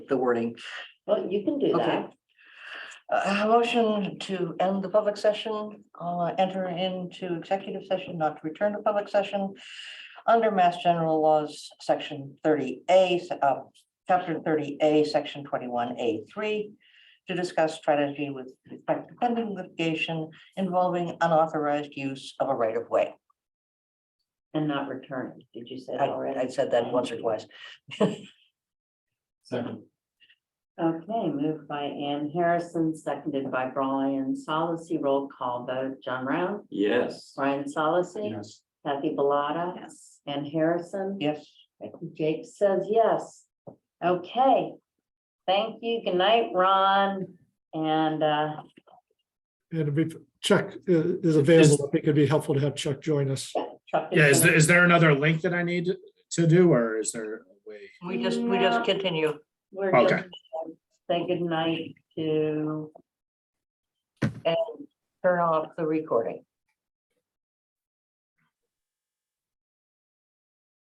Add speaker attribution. Speaker 1: the wording.
Speaker 2: Well, you can do
Speaker 1: Okay.
Speaker 2: that.
Speaker 1: Uh, a motion to end the public session, uh, enter into executive session, not to return to public session. Under Mass General Laws, section thirty A, uh, chapter thirty A, section twenty-one A three. To discuss strategy with respect to pending litigation involving unauthorized use of a right of way.
Speaker 2: And not return. Did you say
Speaker 1: I,
Speaker 2: that already?
Speaker 1: I said that once or twice.
Speaker 3: Second.
Speaker 2: Okay, moved by Ann Harrison, seconded by Brian Solacey. Roll call vote. John Round,
Speaker 3: Yes.
Speaker 2: Brian Solacey,
Speaker 3: Yes.
Speaker 2: Kathy Bellata. Yes. Ann Harrison.
Speaker 1: Yes.
Speaker 2: Jake says yes. Okay. Thank you. Good night, Ron. And uh,
Speaker 4: And if we- Chuck i- is available, I think it'd be helpful to have Chuck join us.
Speaker 2: Chuck.
Speaker 5: Yeah, is
Speaker 2: gonna-
Speaker 5: there, is there another link that I need to do, or is there a way?
Speaker 1: We just, we just
Speaker 2: No.
Speaker 1: continue.
Speaker 2: We're just
Speaker 5: okay.
Speaker 2: gonna Say good night to
Speaker 1: Turn off the recording.